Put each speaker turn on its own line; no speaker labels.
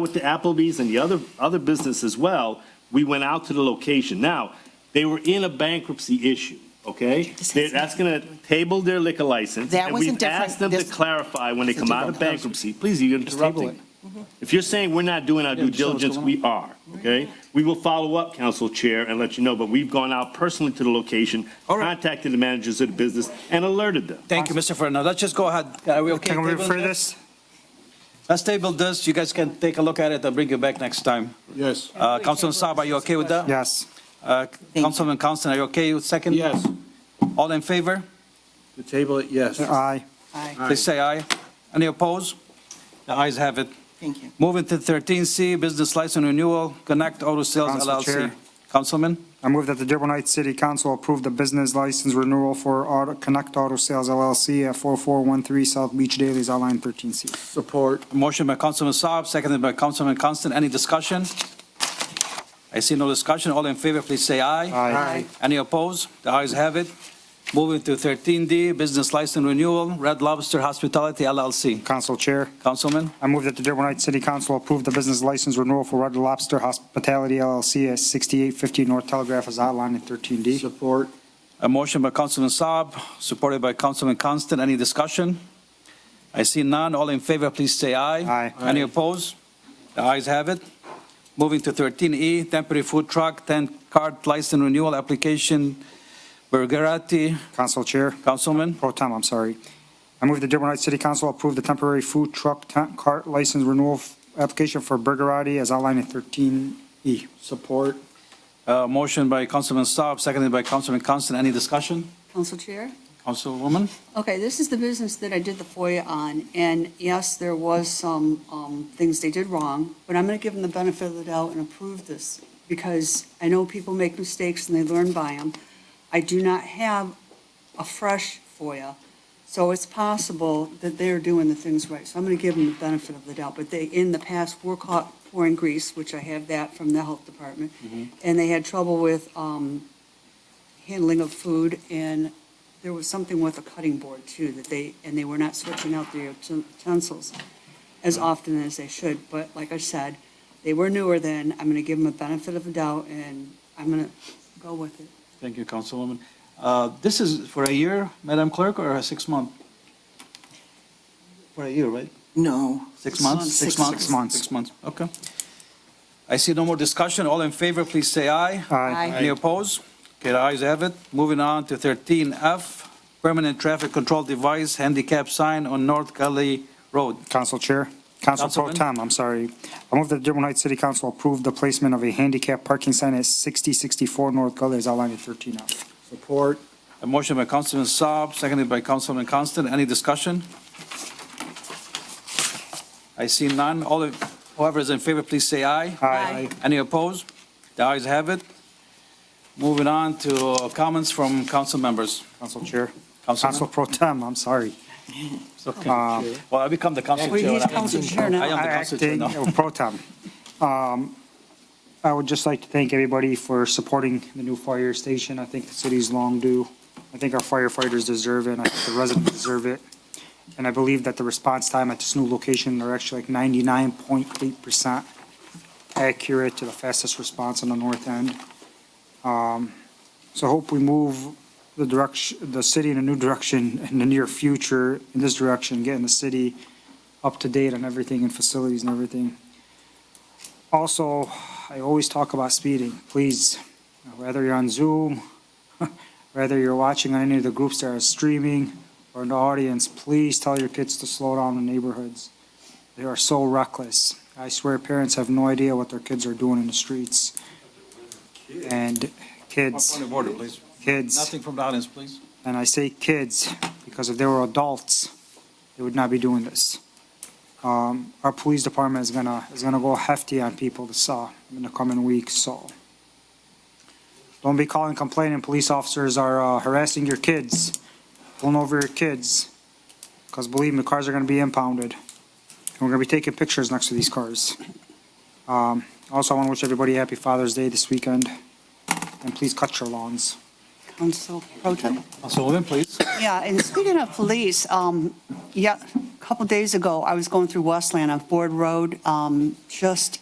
with the Applebee's and the other, other business as well, we went out to the location. Now, they were in a bankruptcy issue, okay?
This has
They- That's gonna table their liquor license.
That wasn't
And
different.
we've asked them to
This-
clarify when they
This is
come out of
different.
bankruptcy, please, you're
table
interrupting. Mm-hmm. If you're saying we're not doing our
Yeah,
due
just tell us what's
diligence, we are, okay? We will follow up, Council Chair, and let you know, but we've gone out personally to the location,
All right.
contacted the managers of the business, and alerted them.
Thank you, Mr. Fernandez. Let's just go ahead. Are we okay?
Can we
tabling
refer this?
Let's table this. You guys can take a look at it and bring it back next time.
Yes.
Uh, Councilman Saab, are you okay with that?
Yes.
Uh, Councilman Constant, are you okay with second?
Yes.
All in favor?
To table it, yes.
Aye.
Please say aye. Any opposed? The ayes have it.
Thank you.
Moving to 13C, business license renewal, Connect Auto Sales
Council
LLC.
Chair.
Councilman,
I move that the Dearborn Heights City Council approve the business license renewal for Auto- Connect Auto Sales LLC at 4413 South Beach Dailies, outline 13C.
Support.
motion by Councilman Saab, seconded by Councilman Constant. Any discussion? I see no discussion. All in favor, please say aye.
Aye.
Any opposed? The ayes have it. Moving to 13D, business license renewal, Red Lobster Hospitality LLC.
Council Chair,
Councilman,
I move that the Dearborn Heights City Council approve the business license renewal for Red Lobster Hospitality LLC at 6850 North Telegraph, as outlined in 13D.
Support.
a motion by Councilman Saab, supported by Councilman Constant. Any discussion? I see none. All in favor, please say aye.
Aye.
Any opposed? The ayes have it. Moving to 13E, temporary food truck, 10-card license renewal application, Burgerati.
Council Chair,
Councilman?
pro tem, I'm sorry. I move the Dearborn Heights City Council approve the temporary food truck tent cart license renewal f- application for Burgerati, as outlined in 13E.
Support.
Uh, Motion by Councilman Saab, seconded by Councilman Constant. Any discussion?
Council Chair?
Councilwoman?
Okay, this is the business that I did the FOIA on, and yes, there was some um, things they did wrong, but I'm going to give them the benefit of the doubt and approve this, because I know people make mistakes and they learn by them. I do not have a fresh FOIA, so it's possible that they're doing the things right. So I'm going to give them the benefit of the doubt, but they, in the past, were caught pouring grease, which I have that from the health department, and they had trouble with um, handling of food and there was something with a cutting board too, that they, and they were not switching out their utensils as often as they should, but like I said, they were newer then, I'm gonna give them a benefit of the doubt, and I'm gonna go with it.
Thank you, Councilwoman. Uh, This is for a year, Madam Clerk, or a six-month? For a year, right?
No.
Six months?
Six months. Six months.
Six months, okay. I see no more discussion. All in favor, please say aye.
uh,
Aye.
Any opposed? Okay, the ayes have it. Moving on to 13F, permanent traffic control device handicap sign on North Gully Road.
Council Chair, Council Pro
Councilman?
Tem, I'm sorry. I move that the Dearborn Heights City Council approve the placement of a handicap parking sign at 6064 North Gully as outlined in 13F.
Support.
A motion by Councilman Saab, seconded by Councilman Constant. Any discussion? I see none. All, in- whoever is in favor, please say aye.
Aye.
Any opposed? The ayes have it. Moving on to uh, comments from council members.
Council Chair, Council
Councilman?
Pro Tem, I'm sorry.
It's okay. Well, I become the council
Well,
chair.
he's
and I-
council chair
I am
now.
the council chair
Acting
now.
uh, Pro Tem. Um, I would just like to thank everybody for supporting the new fire station. I think the city's long due. I think our firefighters deserve it, and I think the residents deserve it. And I believe that the response time at this new location are actually like 99.8% accurate to the fastest response on the north end. Um, So I hope we move the direction, the city in a new direction in the near future, in this direction, getting the city up to date on everything and facilities and everything. Also, I always talk about speeding, please, whether you're on Zoom, whether you're watching on any of the groups that are streaming or in the audience, please tell your kids to slow down in neighborhoods. They are so reckless. I swear parents have no idea what their kids are doing in the streets. And kids,
Point of order, please.
kids,
Nothing from the audience, please.
and I say kids because if they were adults, they would not be doing this. Um, our police department is gonna, is gonna go hefty on people this, uh, in the coming weeks, so. Don't be calling complaining, police officers are uh, harassing your kids, pulling over your kids. Cause believe me, cars are gonna be impounded. And we're gonna be taking pictures next to these cars. Um, also, I wanna wish everybody a happy Father's Day this weekend, and please cut your lawns.
Council Pro Tem.
Councilwoman, please.
Yeah, and speaking of police, um, yeah, couple days ago, I was going through Westland on Ford Road, um, just